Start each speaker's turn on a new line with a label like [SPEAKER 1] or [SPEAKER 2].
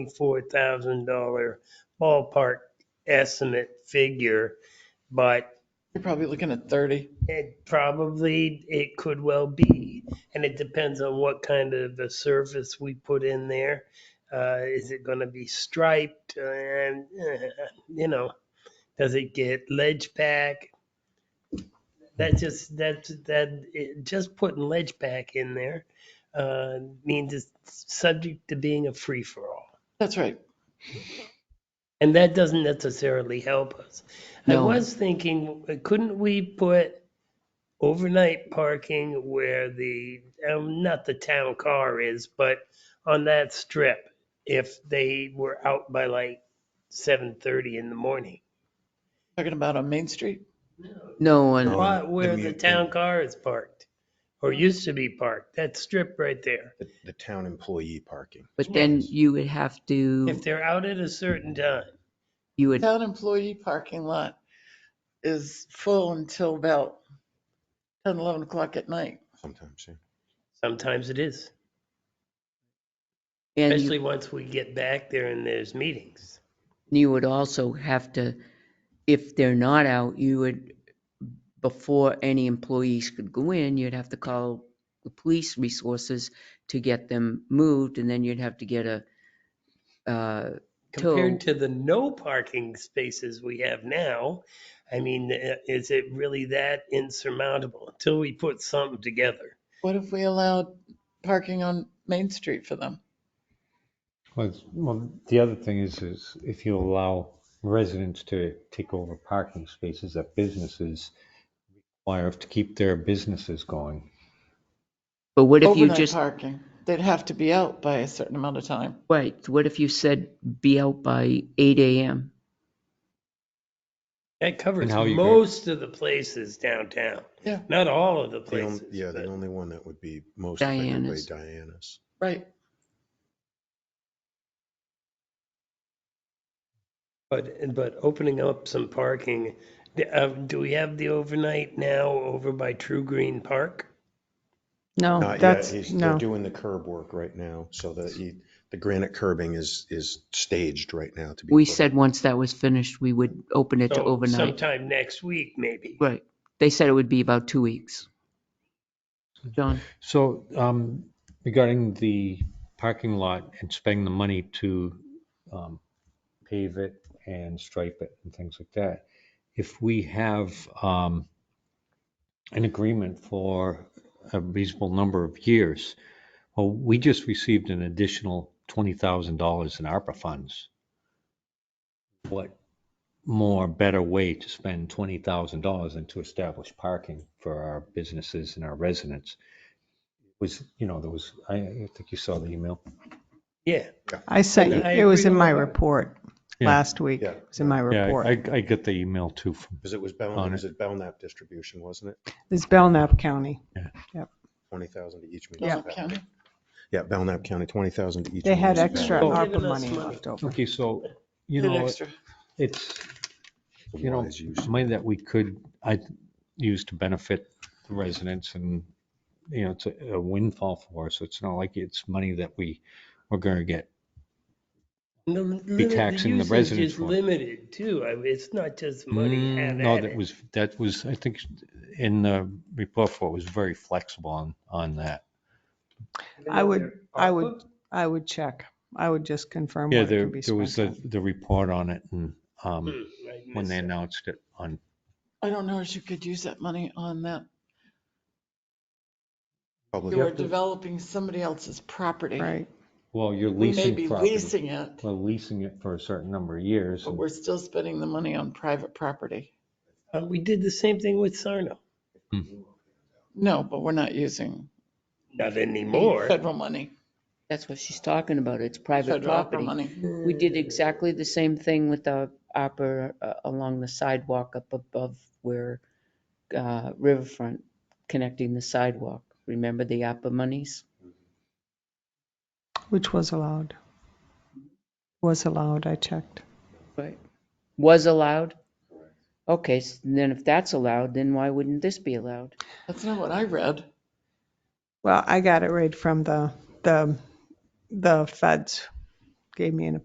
[SPEAKER 1] four thousand dollar ballpark estimate figure, but
[SPEAKER 2] You're probably looking at 30.
[SPEAKER 1] it probably, it could well be. And it depends on what kind of a surface we put in there. Uh, is it gonna be striped and, eh, you know, does it get ledge back? That just, that, that, it- just putting ledge back in there, uh, means it's subject to being a free for all.
[SPEAKER 2] That's right.
[SPEAKER 1] And that doesn't necessarily help us. I
[SPEAKER 2] No.
[SPEAKER 1] was thinking, couldn't we put overnight parking where the, um, not the town car is, but on that strip, if they were out by like seven thirty in the morning?
[SPEAKER 2] Talking about on Main Street?
[SPEAKER 3] No,
[SPEAKER 1] The
[SPEAKER 3] and
[SPEAKER 1] Lot where the
[SPEAKER 4] mute
[SPEAKER 1] town car is parked, or used to be parked, that strip right there.
[SPEAKER 4] The, the town employee parking.
[SPEAKER 3] but then you would have to,
[SPEAKER 1] If they're out at a certain time,
[SPEAKER 3] you would,
[SPEAKER 2] Town employee parking lot is full until about 10, 11 o'clock at night.
[SPEAKER 4] Sometimes, yeah.
[SPEAKER 1] sometimes it is,
[SPEAKER 3] and
[SPEAKER 1] especially
[SPEAKER 3] you-
[SPEAKER 1] once we get back there and there's meetings.
[SPEAKER 3] you would also have to, if they're not out, you would, before any employees could go in, you'd have to call the police resources to get them moved, and then you'd have to get a, uh,
[SPEAKER 1] compared
[SPEAKER 3] Till-
[SPEAKER 1] to the no parking spaces we have now, I mean, eh, is it really that insurmountable until we put something together?
[SPEAKER 2] What if we allowed parking on Main Street for them?
[SPEAKER 5] Well, it's- well, the other thing is, is if you allow residents to take over parking spaces that businesses require to keep their businesses going.
[SPEAKER 3] but what if you
[SPEAKER 2] Overnight
[SPEAKER 3] just,
[SPEAKER 2] parking. They'd have to be out by a certain amount of time.
[SPEAKER 3] right, what if you said be out by eight AM?
[SPEAKER 1] That covers
[SPEAKER 5] how you go-
[SPEAKER 1] most of the places downtown.
[SPEAKER 2] Yeah.
[SPEAKER 1] Not all of the
[SPEAKER 4] The on-
[SPEAKER 1] places.
[SPEAKER 4] Yeah, the
[SPEAKER 1] but-
[SPEAKER 4] only one that would be most likely
[SPEAKER 3] Diana's.
[SPEAKER 4] Diana's.
[SPEAKER 2] Right.
[SPEAKER 1] But, but opening up some parking, d- uh, do we have the overnight now over by True Green Park?
[SPEAKER 6] No,
[SPEAKER 4] Not yet.
[SPEAKER 6] that's,
[SPEAKER 4] He's, they're
[SPEAKER 6] no,
[SPEAKER 4] doing the curb work right now, so that he, the granite curbing is, is staged right now to be.
[SPEAKER 3] We
[SPEAKER 4] put in.
[SPEAKER 3] said once that was finished, we would open it to
[SPEAKER 1] So
[SPEAKER 3] overnight.
[SPEAKER 1] Sometime next week, maybe.
[SPEAKER 3] Right, they said it would be about two weeks. John?
[SPEAKER 5] So um, regarding the parking lot and spending the money to um, pave it and stripe it and things like that, if we have um, an agreement for a reasonable number of years, well, we just received an additional $20,000 in ARPA funds. What more better way to spend $20,000 than to establish parking for our businesses and our residents? was, you know, there was, I I think you saw the email.
[SPEAKER 1] Yeah.
[SPEAKER 6] I sent, you-
[SPEAKER 1] I
[SPEAKER 6] it was
[SPEAKER 1] agree
[SPEAKER 6] in
[SPEAKER 1] with
[SPEAKER 6] my
[SPEAKER 1] that.
[SPEAKER 6] report
[SPEAKER 5] Yeah.
[SPEAKER 6] last week.
[SPEAKER 4] Yeah.
[SPEAKER 6] It was in my
[SPEAKER 5] Yeah, I,
[SPEAKER 6] report.
[SPEAKER 5] I get the email too from,
[SPEAKER 4] Because it was
[SPEAKER 5] On
[SPEAKER 4] Belknap, it
[SPEAKER 5] it.
[SPEAKER 4] was at Belknap distribution, wasn't it?
[SPEAKER 6] It's Belknap County.
[SPEAKER 4] 20,000 to each
[SPEAKER 6] Yeah.
[SPEAKER 4] municipality. Yeah, Belknap County, 20,000 to each.
[SPEAKER 6] They had
[SPEAKER 4] municipality.
[SPEAKER 6] extra
[SPEAKER 5] Oh.
[SPEAKER 6] ARPA
[SPEAKER 1] Giving us
[SPEAKER 6] money
[SPEAKER 1] money.
[SPEAKER 6] left over.
[SPEAKER 5] okay, so, you
[SPEAKER 2] An
[SPEAKER 5] know,
[SPEAKER 2] extra.
[SPEAKER 5] it's, you know,
[SPEAKER 4] Wise use.
[SPEAKER 5] money that we could, I use to benefit the residents and, you know, it's a a windfall for us. It's not like it's money that we, we're going to get.
[SPEAKER 1] Be
[SPEAKER 5] taxing the residents
[SPEAKER 1] Is
[SPEAKER 5] for it.
[SPEAKER 1] limited too. I mean, it's not just money
[SPEAKER 5] Mm,
[SPEAKER 1] had
[SPEAKER 5] No,
[SPEAKER 1] at
[SPEAKER 5] that
[SPEAKER 1] it.
[SPEAKER 5] was, that was, I think in the report for it was very flexible on, on that.
[SPEAKER 6] I would, I would, I would check. I would just confirm
[SPEAKER 5] Yeah,
[SPEAKER 6] what
[SPEAKER 5] there,
[SPEAKER 6] can be
[SPEAKER 5] there was
[SPEAKER 6] spent
[SPEAKER 5] the,
[SPEAKER 6] on.
[SPEAKER 5] the report on it and
[SPEAKER 1] Hmm,
[SPEAKER 5] um,
[SPEAKER 1] I
[SPEAKER 5] when they
[SPEAKER 1] missed that.
[SPEAKER 5] announced it on
[SPEAKER 2] I don't know if you could use that money on that.
[SPEAKER 4] Public-
[SPEAKER 2] You are developing somebody else's property.
[SPEAKER 6] Right.
[SPEAKER 5] Well, you're
[SPEAKER 2] We may be
[SPEAKER 5] leasing property.
[SPEAKER 2] leasing it,
[SPEAKER 5] Well, leasing it for a certain number of years.
[SPEAKER 2] but
[SPEAKER 5] and-
[SPEAKER 2] we're still spending the money on private property.
[SPEAKER 1] Uh, we did the same thing with Sarno.
[SPEAKER 2] No, but we're not using
[SPEAKER 1] Not anymore.
[SPEAKER 2] federal money,
[SPEAKER 3] That's what she's talking about. It's private
[SPEAKER 2] federal opera
[SPEAKER 3] property.
[SPEAKER 2] money.
[SPEAKER 3] We did exactly the same thing with the opera uh, along the sidewalk up above where uh, Riverfront connecting the sidewalk. Remember the opera monies?
[SPEAKER 6] Which was allowed. Was allowed, I checked.
[SPEAKER 3] Right. Was allowed? Okay, s- then if that's allowed, then why wouldn't this be allowed?
[SPEAKER 2] That's not what I read.
[SPEAKER 6] Well, I got it right from the, the, the feds gave me an